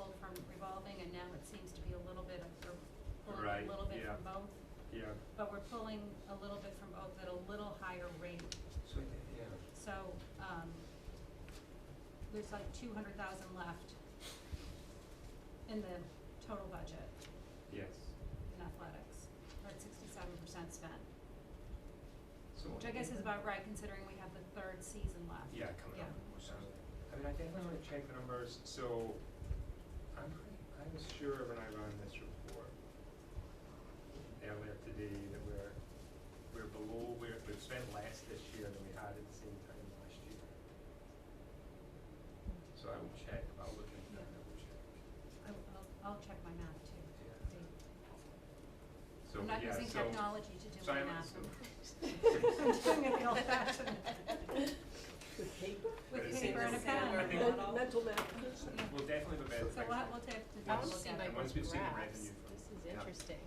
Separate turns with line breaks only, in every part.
revolving, and now it seems to be a little bit of, we're pulling
Right,
a little bit
yeah.
from both.
yeah,
But we're pulling a little bit from both at a little higher rate.
So, yeah,
So, um, there's like two hundred thousand left in the total budget
yes.
in athletics. We're at sixty-seven percent spent,
so.
which I guess is about right considering we have the third season left.
Yeah, coming up.
So, I mean, I definitely wanna check the numbers, so I'm pretty, I was sure when I ran this report earlier today that we're, we're below, where we've spent less this year than we had at the same time last year. So I will check, I'll look into that, and I will check.
I, I'll, I'll check my math too.
Yeah.
See.
So,
I'm not
yeah,
using
so-
technology to do
so
my
I'm-
math.
so-
I'm doing it the old fashioned.
With paper?
But
With
it
paper and a
seems-
pen.
I think-
Men- Mental math.
so We'll definitely have a better
So
picture.
we'll, have- we'll take the
I
time
wanna
to look
see
at
my
it.
once we've seen the revenue from-
This is
Yeah.
interesting.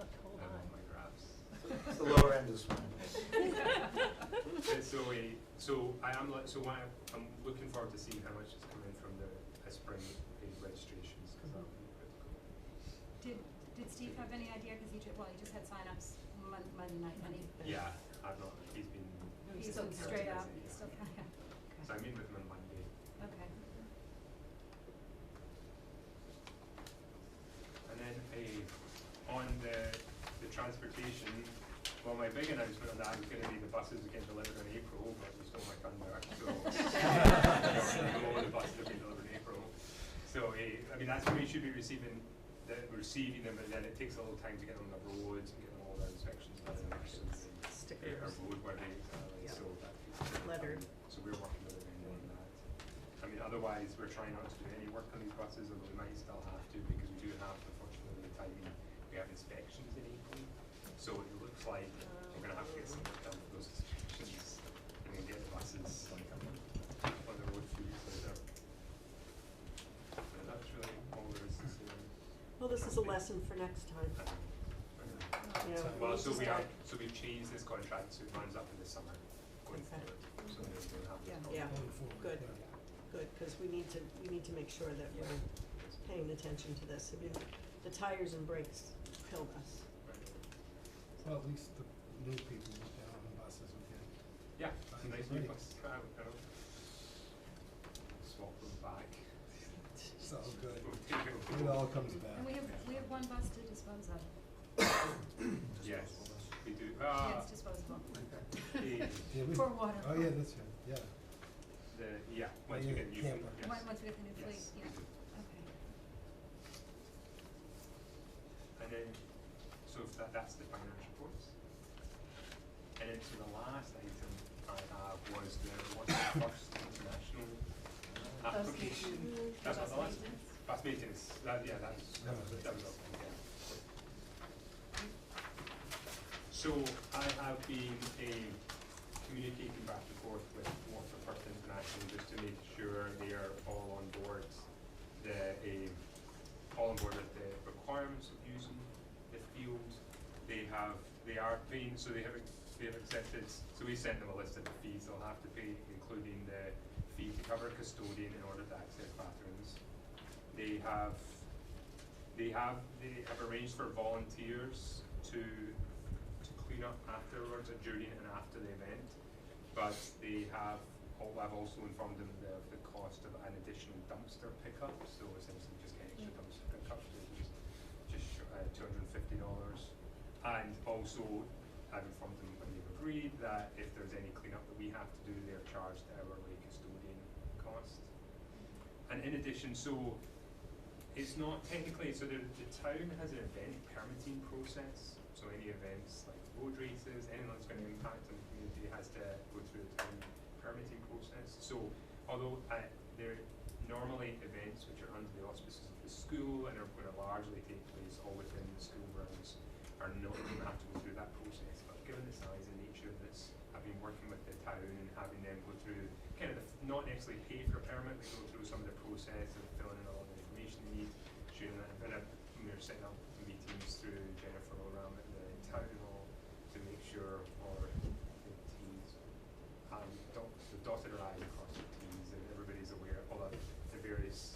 Look, hold
I love
on.
my graphs.
It's the lower end is fine.
And so we, so I am, li- so what I'm, I'm looking forward to seeing how much is coming from the uh, spring paid registrations, cause that'll be critical.
Mm-hmm. Did, did Steve have any idea, cause he ju- well, he just had signups Mon- Monday night, and he,
Yeah, I've not, he's been,
he's
still
straight up,
counting, isn't he?
he's still, yeah, okay,
so I meet with him on Monday.
okay.
And then a, on the, the transportation, well, my big announcement on that was gonna be the buses are getting delivered in April, but we stole my thunder, so. You know, the buses will be delivered in April. So, eh, I mean, that's when we should be receiving, the, receiving them, but then it takes a little time to get them on the roads and get them all their inspections done and everything. They are
Stickers.
roadworthy, exactly,
Yeah.
so that. takes a bit of
Lettered.
time. Um, So we're working with them on that. I mean, otherwise, we're trying not to do any work on these buses, although we might still have to, because we do have, unfortunately, the timing, we have inspections in April. So it looks like we're gonna have to get some work done with those inspections, and then get the buses like on on the road too, so they're. So that's really all there is to say.
Well, this is a lesson for next time. You know, we
Well,
need
so
to
we have,
start-
so we've changed this contract, so it runs up in the summer, going forward, so then we'll have this
Yeah.
problem.
Yeah, good, good, because we need to, we need to make sure that
Yeah.
we're paying attention to this. I mean, the tires and brakes killed us.
Well, at least the new people went down on buses again.
Yeah,
Fine.
nice new
Ready.
bus, I don't, I don't- swap them back,
It's all good.
we'll take it.
It all comes back.
And we have, we have one bus to dispose of,
Yes, we do,
yeah,
uh,
it's disposable,
the,
Yeah, we-
for water.
Oh, yeah, that's right, yeah.
the, yeah, once we
Yeah,
get new, food,
camper.
yes,
Once, once we get the new fleet,
yes, we
yeah,
do.
okay.
And then, so if that, that's the finance reports. And then so the last item I have was the, what's the first international application? That's not the last, that's maintenance, that, yeah, that's, that was, that was, up, yeah. So I have been a communicating back and forth with Waterford International just to make sure they are all on board, the, a, all on board with the requirements of using the field. They have, they are paying, so they have, they have accepted, so we sent them a list of the fees they'll have to pay, including the fee to cover custodian in order to access bathrooms. They have, they have, they have arranged for volunteers to, to clean up afterwards, or during and after the event. But they have, al- I've also informed them of the cost of an additional dumpster pickup, so essentially just an extra dumpster pickup, so it's just, just sh- uh, two hundred and fifty dollars. And also, I've informed them when they've agreed that if there's any cleanup that we have to do, they're charged the hourly custodian cost. And in addition, so it's not technically, so the, the town has an event permitting process, so any events like road races, anything that's gonna impact on the community has to go through the town permitting process. So although uh, they're normally events which are under the auspices of the school and are gonna largely take place all within the school grounds are not gonna have to go through that process, but given the size and nature of this, I've been working with the town and having them go through kind of the, f- not necessarily pay for a permit, but go through some of the process of filling in all the information they need, sharing that, and I've, we were setting up meetings through Jennifer around at the town hall to make sure our T's and dot, the dotted lines